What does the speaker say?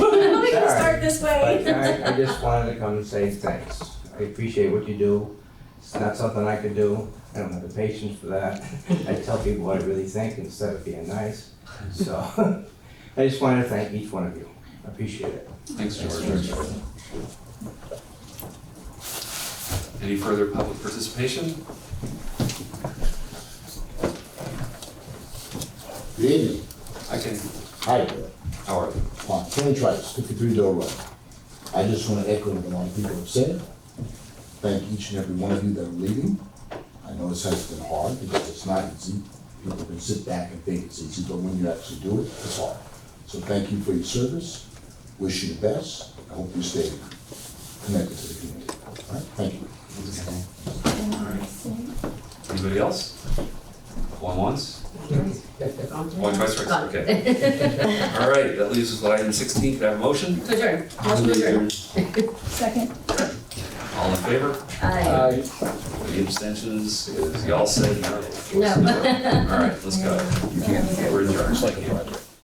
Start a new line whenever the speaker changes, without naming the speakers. this way.
But uh, I, I just wanted to come and say thanks. I appreciate what you do. It's not something I could do. I don't have the patience for that. I tell people what I really think instead of being nice. So I just wanted to thank each one of you. I appreciate it.
Thanks, George. Any further public participation?
Good evening.
I can,
Hi there.
how are you?
Uh, Kenny Trice, fifty-three Dole Road. I just want to echo what a lot of people have said. Thank each and every one of you that are leaving. I know this has been hard because it's not easy. People can sit back and think it's easy, but when you actually do it, it's hard. So thank you for your service. Wish you the best. I hope you stay connected to the community. All right, thank you.
Anybody else? One once, one twice, or- okay. All right, that leaves us with item sixteen, could I have a motion?
To adjourn, motion to adjourn.
Second.
All in favor?
Aye.
Any abstentions? Is y'all said no?
No.
All right, let's go. We're adjourned.
It's like a project.